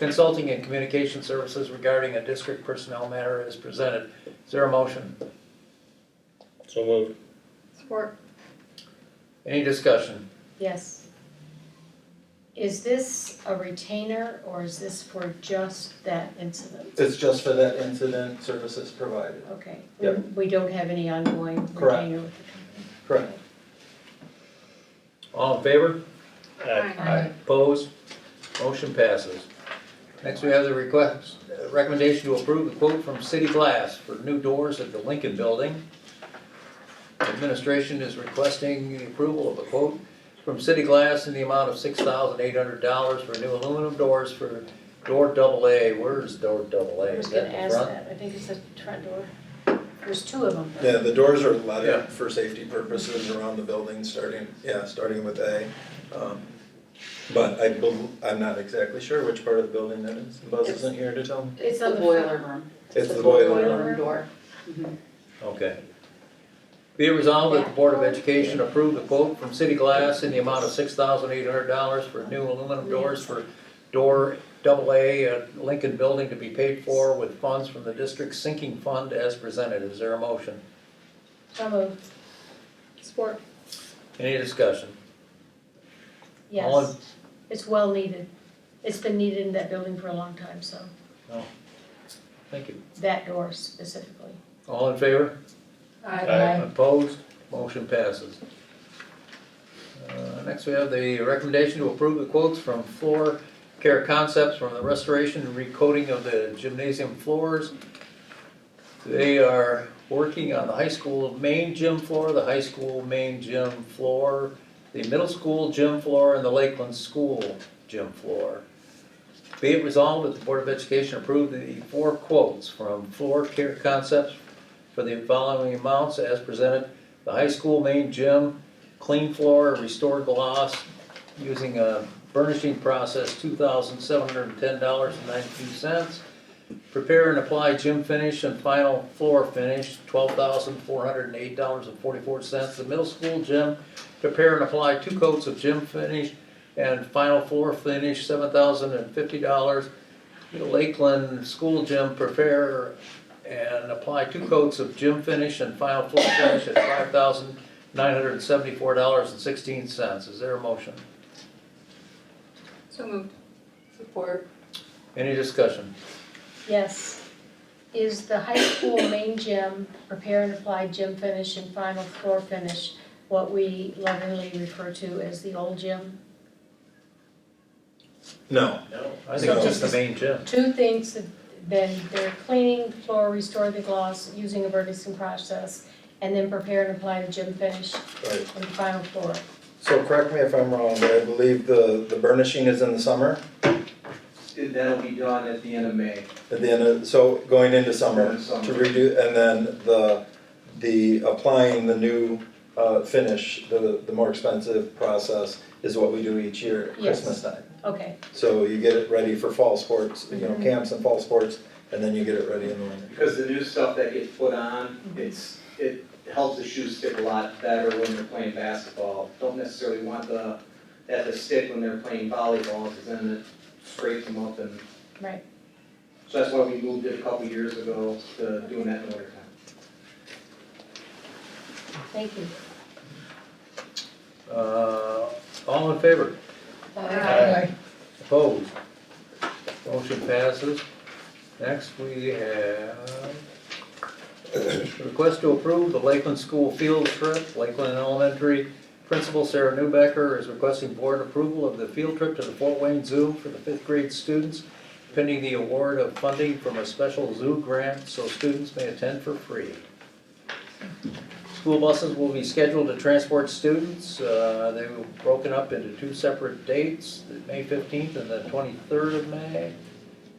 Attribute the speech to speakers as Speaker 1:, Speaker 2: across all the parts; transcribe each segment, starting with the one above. Speaker 1: consulting and communication services regarding a district personnel matter is presented. Is there a motion?
Speaker 2: So moved.
Speaker 3: Support.
Speaker 1: Any discussion?
Speaker 3: Yes. Is this a retainer or is this for just that incident?
Speaker 4: It's just for that incident, services provided,
Speaker 3: Okay.
Speaker 4: Yep.
Speaker 3: We don't have any ongoing
Speaker 4: Correct.
Speaker 3: retainer with the
Speaker 4: correct.
Speaker 1: All in favor?
Speaker 2: Aye.
Speaker 5: Uh,
Speaker 3: company?
Speaker 1: Opposed? Motion passes. Next, we have the request, uh, recommendation to approve the quote from City Glass for new doors at the Lincoln Building. Administration is requesting the approval of a quote from City Glass in the amount of six thousand eight hundred dollars for new aluminum doors for door double A. Where's door double A?
Speaker 3: I was
Speaker 1: Is
Speaker 3: gonna
Speaker 1: that in
Speaker 3: ask
Speaker 1: front?
Speaker 3: that, I think it's a front door. There's two of them.
Speaker 6: Yeah, the doors are
Speaker 1: Yeah.
Speaker 6: leaded for safety purposes around the building, starting, yeah, starting with A. Um, But I, bel- I'm not exactly sure which part of the building that is, Buzz
Speaker 5: It's-
Speaker 6: isn't here to tell me.
Speaker 3: It's
Speaker 5: The
Speaker 3: on the
Speaker 5: boiler room.
Speaker 6: It's the boiler
Speaker 3: boiler
Speaker 6: room.
Speaker 3: room.
Speaker 5: Door.
Speaker 1: Okay. Be it resolved that the Board of Education approve the quote from City Glass in the amount of six thousand eight hundred dollars for new aluminum doors for door double A at Lincoln Building to be paid for with funds from the district's sinking fund as presented. Is there a motion?
Speaker 3: So moved. Support.
Speaker 1: Any discussion? All in-
Speaker 3: Yes. It's well needed. It's been needed in that building for a long time, so
Speaker 1: Thank you.
Speaker 3: that door specifically.
Speaker 1: All in favor?
Speaker 2: Aye.
Speaker 1: Opposed? Motion passes. Uh, Next, we have the recommendation to approve the quotes from Floor Care Concepts from the restoration and recoating of the gymnasium floors. They are working on the high school main gym floor, the high school main gym floor, the middle school gym floor, and the Lakeland School gym floor. Be it resolved that the Board of Education approve the four quotes from Floor Care Concepts for the following amounts as presented. The high school main gym, clean floor, restore gloss, using a burnishing process, two thousand seven hundred and ten dollars and ninety-two cents. Prepare and apply gym finish and final floor finish, twelve thousand four hundred and eight dollars and forty-four cents. The middle school gym, prepare and apply two coats of gym finish and final floor finish, seven thousand and fifty dollars. Lakeland School Gym, prepare and apply two coats of gym finish and final floor finish at five thousand nine hundred and seventy-four dollars and sixteen cents. Is there a motion?
Speaker 5: So moved. Support.
Speaker 1: Any discussion?
Speaker 3: Yes. Is the high school main gym, prepare and apply gym finish and final floor finish, what we lovingly refer to as the old gym?
Speaker 6: No,
Speaker 1: I think it's just the main gym.
Speaker 3: Two things have been, they're cleaning the floor, restore the gloss, using a burnishing process, and then prepare and apply the gym finish
Speaker 6: right.
Speaker 3: and final floor.
Speaker 6: So correct me if I'm wrong, but I believe the, the burnishing is in the summer,
Speaker 7: That'll be done at the end of May.
Speaker 6: at the end of, so going into summer
Speaker 7: Summer.
Speaker 6: to redo, and then the, the applying the new uh, finish, the, the more expensive process is what we do each year at
Speaker 3: Yes.
Speaker 6: Christmas time.
Speaker 3: Okay,
Speaker 6: So you get it ready for fall sports, you know, camps and fall sports, and then you get it ready in the winter.
Speaker 7: Because the new stuff that gets put on, it's, it helps the shoes stick a lot better when they're playing basketball. Don't necessarily want the, that to stick when they're playing volleyball, because then it scrapes them up and.
Speaker 3: Right.
Speaker 7: So that's why we moved it a couple years ago to doing that in the winter time.
Speaker 3: thank you.
Speaker 1: Uh, all in favor? Opposed? Motion passes. Next, we have request to approve the Lakeland School field trip. Lakeland Elementary Principal Sarah Newbecker is requesting board approval of the field trip to the Fort Wayne Zoo for the fifth grade students pending the award of funding from a special zoo grant so students may attend for free. School buses will be scheduled to transport students. Uh, They were broken up into two separate dates, the May 15th and the 23rd of May.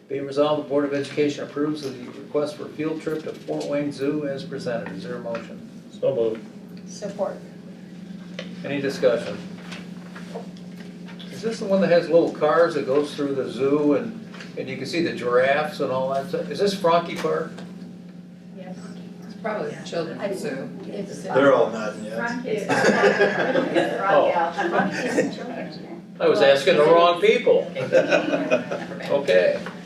Speaker 1: Be it resolved, the Board of Education approves of the request for field trip to Fort Wayne Zoo as presented. Is there a motion?
Speaker 2: So moved.
Speaker 3: Support.
Speaker 1: Any discussion? Is this the one that has little cars that goes through the zoo and, and you can see the giraffes and all that stuff? Is this Frankie Park?
Speaker 3: Yes.
Speaker 5: It's probably the children's zoo.
Speaker 3: It's, uh,
Speaker 6: They're all nodding yes.
Speaker 8: Front is, front is,
Speaker 1: Oh.
Speaker 8: yeah.
Speaker 3: Front is children's.
Speaker 1: I was asking the wrong people. Okay.